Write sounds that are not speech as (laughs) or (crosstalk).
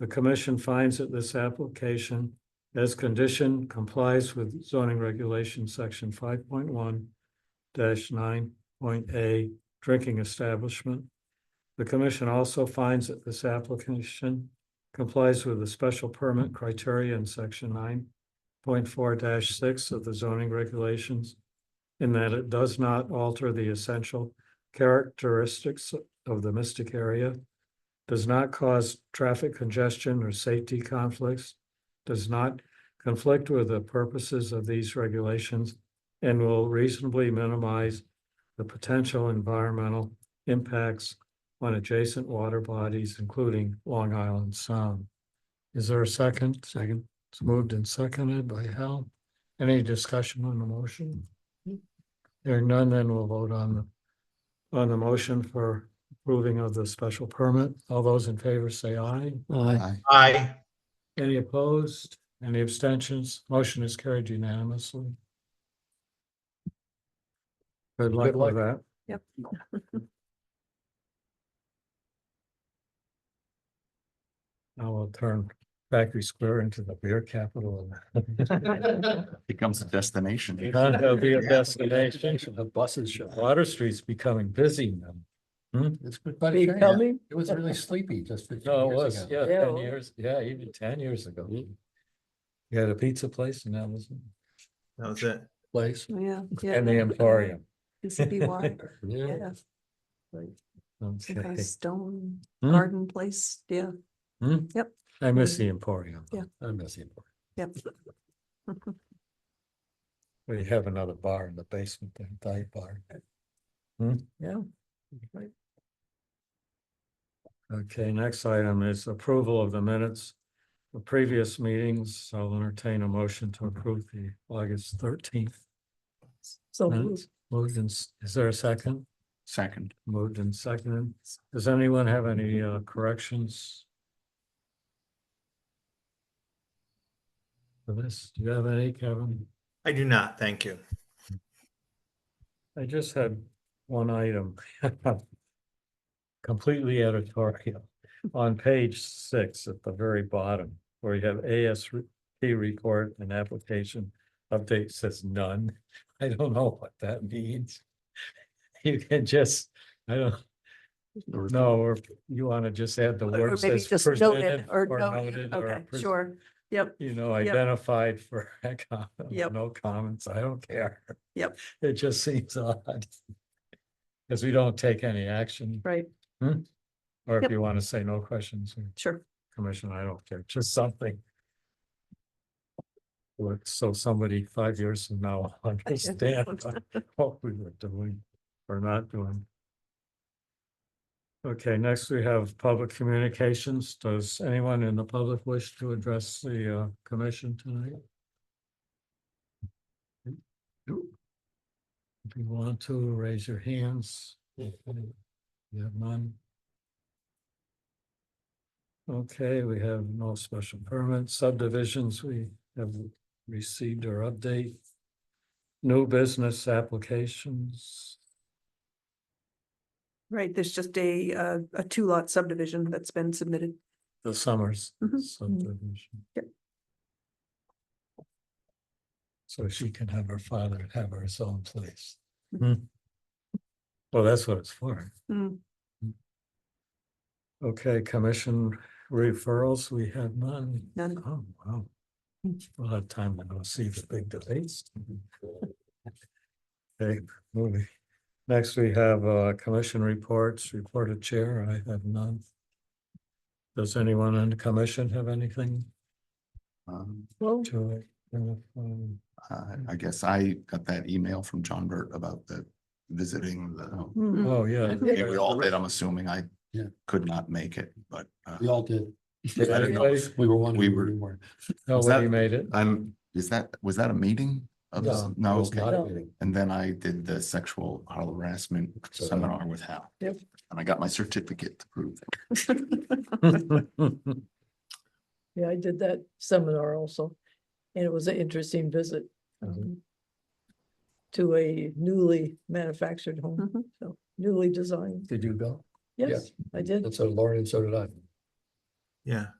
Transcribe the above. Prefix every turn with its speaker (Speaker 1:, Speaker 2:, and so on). Speaker 1: The commission finds that this application as condition complies with zoning regulation section five point one nine point A drinking establishment. The commission also finds that this application complies with the special permit criteria in section nine point four six of the zoning regulations in that it does not alter the essential characteristics of the mystic area, does not cause traffic congestion or safety conflicts, does not conflict with the purposes of these regulations, and will reasonably minimize the potential environmental impacts on adjacent water bodies, including Long Island Sound. Is there a second? Second. It's moved and seconded by Hal. Any discussion on the motion? Hearing none, then we'll vote on the, on the motion for approving of the special permit. All those in favor say aye.
Speaker 2: Uh,
Speaker 1: Aye.
Speaker 3: Aye.
Speaker 1: Any opposed? Any abstentions? Motion is carried unanimously. Good luck
Speaker 3: luck.
Speaker 1: with that.
Speaker 4: Yep.
Speaker 1: Now we'll turn Factory Square into the beer capital.
Speaker 2: Becomes a destination.
Speaker 1: It'll be a destination. The buses show. Water Street's becoming busy now.
Speaker 3: It's been quite a change. It was really sleepy just fifteen
Speaker 1: No, it
Speaker 3: years
Speaker 1: was,
Speaker 3: ago.
Speaker 1: yeah,
Speaker 4: Yeah, it
Speaker 1: ten
Speaker 4: was.
Speaker 1: years, yeah, even ten years ago. You had a pizza place and that was a
Speaker 5: That was it.
Speaker 1: place
Speaker 4: Oh, Yeah. yeah,
Speaker 1: and the Emporium.
Speaker 4: PCBY,
Speaker 1: (laughs) Yeah.
Speaker 4: yeah, some kind
Speaker 1: Okay.
Speaker 4: of stone
Speaker 1: Hmm.
Speaker 4: garden place, yeah,
Speaker 1: I miss the Emporium.
Speaker 4: Yeah.
Speaker 1: I miss the Emporium.
Speaker 4: yep.
Speaker 1: We have another bar in the basement, the dive bar. Hmm?
Speaker 4: Yeah.
Speaker 1: Okay, next item is approval of the minutes of previous meetings. I'll entertain a motion to approve the August thirteenth.
Speaker 4: So
Speaker 1: Minutes. Moved and, s- is there a second?
Speaker 2: Second.
Speaker 1: Moved and seconded. Does anyone have any uh, corrections? For this, do you have any, Kevin?
Speaker 5: I do not, thank you.
Speaker 1: I just had one item. (laughs) Completely editorial. On page six at the very bottom, where you have ASP report and application update says none. (laughs) I don't know what that means. (laughs) You can just, I don't, no, or you want to just add the
Speaker 4: Or
Speaker 1: word
Speaker 4: maybe
Speaker 1: says
Speaker 4: just noted
Speaker 1: presented
Speaker 4: or
Speaker 1: or
Speaker 4: noted,
Speaker 1: noted or
Speaker 4: okay,
Speaker 1: pres-
Speaker 4: sure, yep,
Speaker 1: You know, identified for (laughs) a comment,
Speaker 4: Yep.
Speaker 1: no comments, I don't care.
Speaker 4: Yep.
Speaker 1: (laughs) It just seems odd. Because we don't take any action,
Speaker 4: right,
Speaker 1: or if
Speaker 4: Yep.
Speaker 1: you want to say no questions, or
Speaker 4: sure,
Speaker 1: commission, I don't care, just something. Look, So somebody five years from now (laughs) will understand what we were doing or not doing. Okay, next we have public communications. Does anyone in the public wish to address the uh, commission tonight? If you want to, raise your hands. If You have none. Okay, we have no special permits, subdivisions, we have received our update. New business applications,
Speaker 4: right, there's just a, uh, a two lot subdivision that's been submitted.
Speaker 1: the Summers
Speaker 4: Mhm.
Speaker 1: subdivision.
Speaker 4: Yep.
Speaker 1: So she can have her father have her own place.
Speaker 4: Mhm.
Speaker 1: Hmm. Well, that's what it's for. Hmm.
Speaker 4: Mm,
Speaker 1: Okay, commission referrals, we have none.
Speaker 4: None.
Speaker 1: Oh, wow. We'll have time to go see the big debates. Okay, moving. Next, we have uh commission reports, reported chair, I have none. Does anyone in the commission have anything
Speaker 2: Um,
Speaker 1: to? uh,
Speaker 2: Mm.
Speaker 1: um,
Speaker 2: I
Speaker 3: Mm-hmm.
Speaker 2: I guess I got that email from John Burt about the visiting the.
Speaker 6: hmm,
Speaker 4: mm,
Speaker 1: Oh, yeah.
Speaker 2: I think We all did, I'm assuming. I
Speaker 3: Yeah.
Speaker 2: could not make it, but uh,
Speaker 3: We all did.
Speaker 2: I don't know. if-
Speaker 3: We were one.
Speaker 2: We were- Was
Speaker 1: Nobody
Speaker 2: that-
Speaker 1: made it.
Speaker 2: I'm, is that, was that a meeting? of the-
Speaker 1: No,
Speaker 2: No,
Speaker 3: It was
Speaker 2: okay.
Speaker 3: not a meeting.
Speaker 2: And then I did the sexual harassment
Speaker 3: So-
Speaker 2: seminar with Hal.
Speaker 4: Yep.
Speaker 2: And I got my certificate to prove. it. (laughs)
Speaker 6: Yeah, I did that seminar also, and it was an interesting visit.
Speaker 1: Mhm.
Speaker 6: um, To a newly manufactured home,
Speaker 4: mhm.
Speaker 6: so newly designed,
Speaker 1: (laughs) Did you go?
Speaker 6: yes, I did.
Speaker 3: And so Lauren and so did I.
Speaker 5: Yeah,